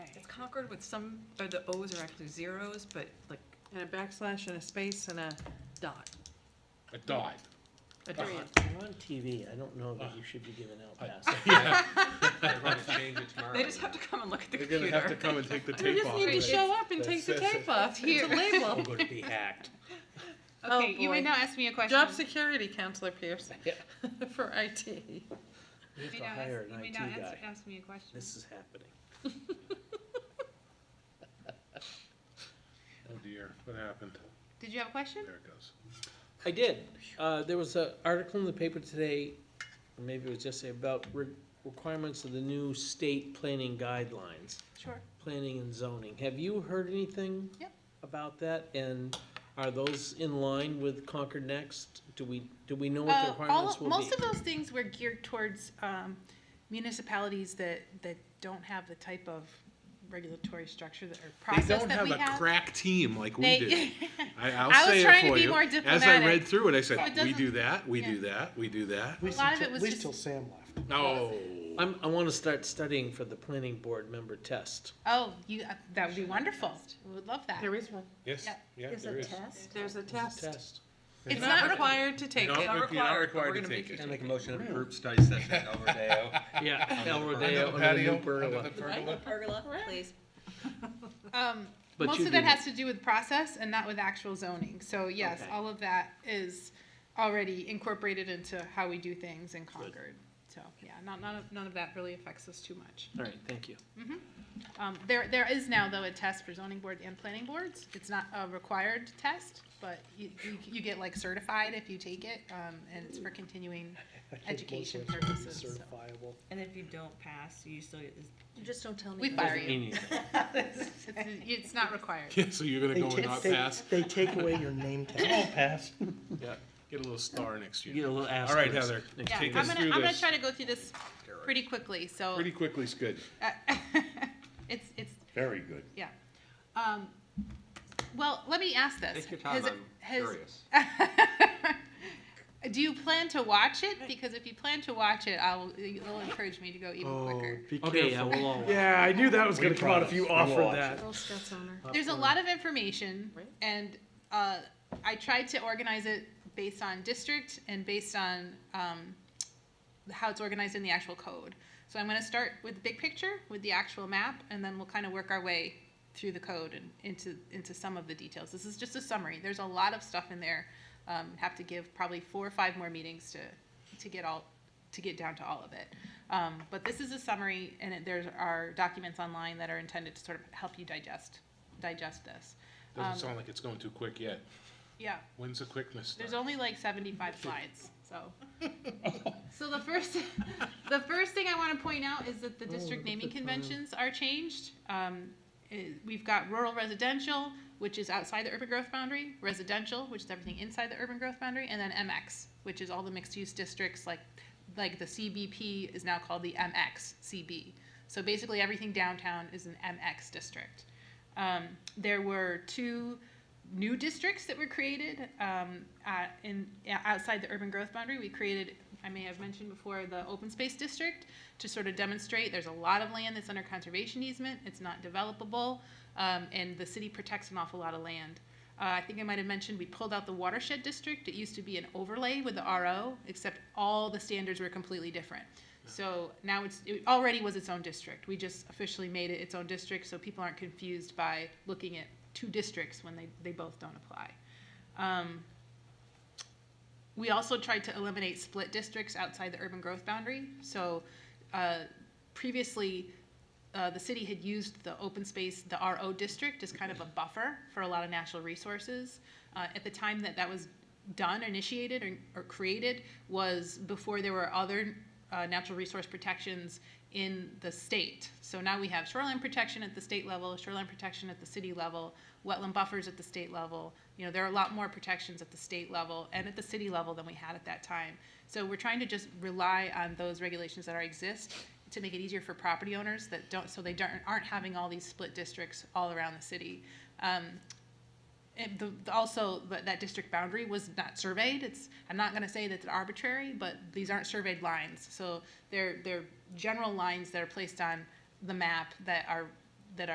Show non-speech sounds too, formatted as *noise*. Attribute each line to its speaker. Speaker 1: Concord with some, or the O's are actually zeros, but like, and a backslash and a space and a dot,
Speaker 2: A dot.
Speaker 1: a
Speaker 2: Dot.
Speaker 1: period.
Speaker 3: You're on TV, I don't know that you should be giving out passes.
Speaker 2: *laughs* *laughs* Yeah,
Speaker 4: They're gonna change it tomorrow.
Speaker 1: They just have to come and look at the
Speaker 2: they're gonna have to
Speaker 1: computer.
Speaker 2: come and take the
Speaker 1: They
Speaker 2: tape
Speaker 1: just
Speaker 2: off.
Speaker 1: need to
Speaker 2: it.
Speaker 1: show up and
Speaker 2: That
Speaker 1: take the
Speaker 2: says
Speaker 1: tape
Speaker 2: it.
Speaker 1: off, it's a
Speaker 3: I'm
Speaker 1: label.
Speaker 3: going to be hacked.
Speaker 1: *laughs* Oh,
Speaker 5: Okay, you may
Speaker 1: boy.
Speaker 5: now ask me a question.
Speaker 1: Job security, Counselor Pierce, *laughs* for IT.
Speaker 5: You
Speaker 3: We
Speaker 5: may
Speaker 3: have to
Speaker 5: now ask-
Speaker 3: hire an
Speaker 5: you may
Speaker 3: IT
Speaker 5: now ask-
Speaker 3: guy.
Speaker 5: Ask me a question.
Speaker 3: This is happening.
Speaker 2: Oh dear, what happened?
Speaker 5: Did you have a question?
Speaker 2: There it goes.
Speaker 3: I did. Uh, there was an article in the paper today, or maybe it was yesterday, about re- requirements of the new state planning guidelines,
Speaker 5: Sure.
Speaker 3: planning and zoning. Have you heard anything?
Speaker 5: Yep.
Speaker 3: About that, and are those in line with Concord Next? Do we, do we know what the requirements will be?
Speaker 5: Uh, most of those things were geared towards um, municipalities that, that don't have the type of regulatory structure that, or
Speaker 2: They
Speaker 5: process
Speaker 2: don't
Speaker 5: that
Speaker 2: have
Speaker 5: we
Speaker 2: a
Speaker 5: have.
Speaker 2: crack team like we
Speaker 5: They- *laughs*
Speaker 2: do. I, I'll
Speaker 5: I was
Speaker 2: say
Speaker 5: trying
Speaker 2: it
Speaker 5: to
Speaker 2: for
Speaker 5: be
Speaker 2: you.
Speaker 5: more
Speaker 2: As I
Speaker 5: diplomatic.
Speaker 2: read through it, I said,
Speaker 5: So it
Speaker 2: we do
Speaker 5: doesn't-
Speaker 2: that, we
Speaker 5: yeah.
Speaker 2: do that, we do that.
Speaker 5: A lot of it was
Speaker 6: At least till
Speaker 5: just,
Speaker 6: Sam left.
Speaker 2: No.
Speaker 3: I'm, I wanna start studying for the planning board member test.
Speaker 5: oh, you, uh, that would be wonderful. We would love that.
Speaker 1: is one.
Speaker 2: Yes,
Speaker 5: Yeah.
Speaker 2: yeah, there is.
Speaker 1: There's a
Speaker 3: It's a
Speaker 1: test.
Speaker 3: Test.
Speaker 5: It's
Speaker 1: You're not
Speaker 5: not
Speaker 1: required to take it.
Speaker 2: Not re- you're not
Speaker 1: but we're
Speaker 2: required to
Speaker 1: gonna make
Speaker 2: take it. *laughs*
Speaker 1: you
Speaker 4: I make a motion to approve study session at El Rodeo.
Speaker 3: *laughs* Yeah, El
Speaker 2: Under
Speaker 3: Rodeo
Speaker 2: the
Speaker 3: and a new
Speaker 2: patio, under
Speaker 3: pergola.
Speaker 2: the pergola.
Speaker 7: Pergola, please.
Speaker 5: Um,
Speaker 3: But
Speaker 5: most
Speaker 3: you
Speaker 5: of that
Speaker 3: do-
Speaker 5: has to do with process and not with actual zoning. So yes,
Speaker 3: Okay.
Speaker 5: all of that is already incorporated into how we do things in Concord. So yeah, not, none of, none of that really affects us too much.
Speaker 3: All right, thank you.
Speaker 5: Um, there, there is now though a test for zoning board and planning boards. It's not a required test, but you, you, you get like certified if you take it, um, and it's for continuing
Speaker 6: *laughs* I think most
Speaker 5: education
Speaker 6: of it's gonna be
Speaker 5: purposes. so.
Speaker 6: Certifiable.
Speaker 7: And if you don't pass, you still get this.
Speaker 1: You just don't tell
Speaker 5: We fire
Speaker 3: Doesn't mean
Speaker 5: you.
Speaker 3: anything.
Speaker 5: It's, it's not required.
Speaker 2: Yeah, so you're gonna
Speaker 6: They
Speaker 2: go and
Speaker 6: take-
Speaker 2: not
Speaker 6: they-
Speaker 2: pass?
Speaker 6: They take away your
Speaker 2: *laughs*
Speaker 6: name tag. Come on, pass.
Speaker 2: Yeah. Get a little star next
Speaker 3: You get
Speaker 2: year.
Speaker 3: a little asterisk.
Speaker 2: All right, Heather,
Speaker 5: Yeah, I'm
Speaker 2: take us
Speaker 5: gonna,
Speaker 2: through
Speaker 5: I'm gonna
Speaker 2: this.
Speaker 5: try to go through this pretty quickly, so.
Speaker 2: Pretty quickly is good.
Speaker 5: *laughs* It's, it's,
Speaker 2: Very good.
Speaker 5: yeah. Um, well, let me ask this.
Speaker 4: Take your time,
Speaker 5: Has-
Speaker 4: I'm
Speaker 5: has-
Speaker 4: curious.
Speaker 5: *laughs* Do you plan to watch it? Because if you plan to watch it, I'll, it'll encourage me to go even quicker.
Speaker 3: Okay, yeah, we'll all watch.
Speaker 6: Yeah, I knew that was
Speaker 2: We
Speaker 6: gonna come out if
Speaker 2: promise.
Speaker 6: you
Speaker 2: We'll
Speaker 6: offered
Speaker 2: watch
Speaker 6: that.
Speaker 1: Girl Scouts honor.
Speaker 5: There's a lot of information,
Speaker 1: Right.
Speaker 5: and uh, I tried to organize it based on district and based on um, how it's organized in the actual code. So I'm gonna start with the big picture, with the actual map, and then we'll kind of work our way through the code and into, into some of the details. This is just a summary. There's a lot of stuff in there. Um, have to give probably four or five more meetings to, to get all, to get down to all of it. Um, but this is a summary, and it, there are documents online that are intended to sort of help you digest, digest this.
Speaker 2: Doesn't sound like it's going too quick yet.
Speaker 5: Yeah,
Speaker 2: When's the quickness start?
Speaker 5: there's only like seventy-five slides, so. So the first, the first thing I wanna point out is that the district naming conventions are changed. Um, eh, we've got rural residential, which is outside the urban growth boundary, residential, which is everything inside the urban growth boundary, and then MX, which is all the mixed-use districts, like, like the CBP is now called the MX CB. So basically, everything downtown is an MX district. Um, there were two new districts that were created um, uh, in yeah, outside the urban growth boundary. We created, I may have mentioned before, the open space district to sort of demonstrate there's a lot of land that's under conservation easement. It's not developable, um, and the city protects an awful lot of land. Uh, I think I might have mentioned we pulled out the watershed district. It used to be an overlay with the RO, except all the standards were completely different. So now it's, it already was its own district. We just officially made it its own district, so people aren't confused by looking at two districts when they, they both don't apply. Um, we also tried to eliminate split districts outside the urban growth boundary. So uh, previously, uh, the city had used the open space, the RO district, as kind of a buffer for a lot of natural resources. Uh, at the time that that was done, initiated, or, or created, was before there were other uh, natural resource protections in the state. So now we have shoreline protection at the state level, shoreline protection at the city level, wetland buffers at the state level. You know, there are a lot more protections at the state level and at the city level than we had at that time. So we're trying to just rely on those regulations that already exist to make it easier for property owners that don't, so they don't, aren't having all these split districts all around the city. Um, and the, the- also, but that district boundary was not surveyed, it's, I'm not gonna say that it's arbitrary, but these aren't surveyed lines, so they're, they're general lines that are placed on the map that are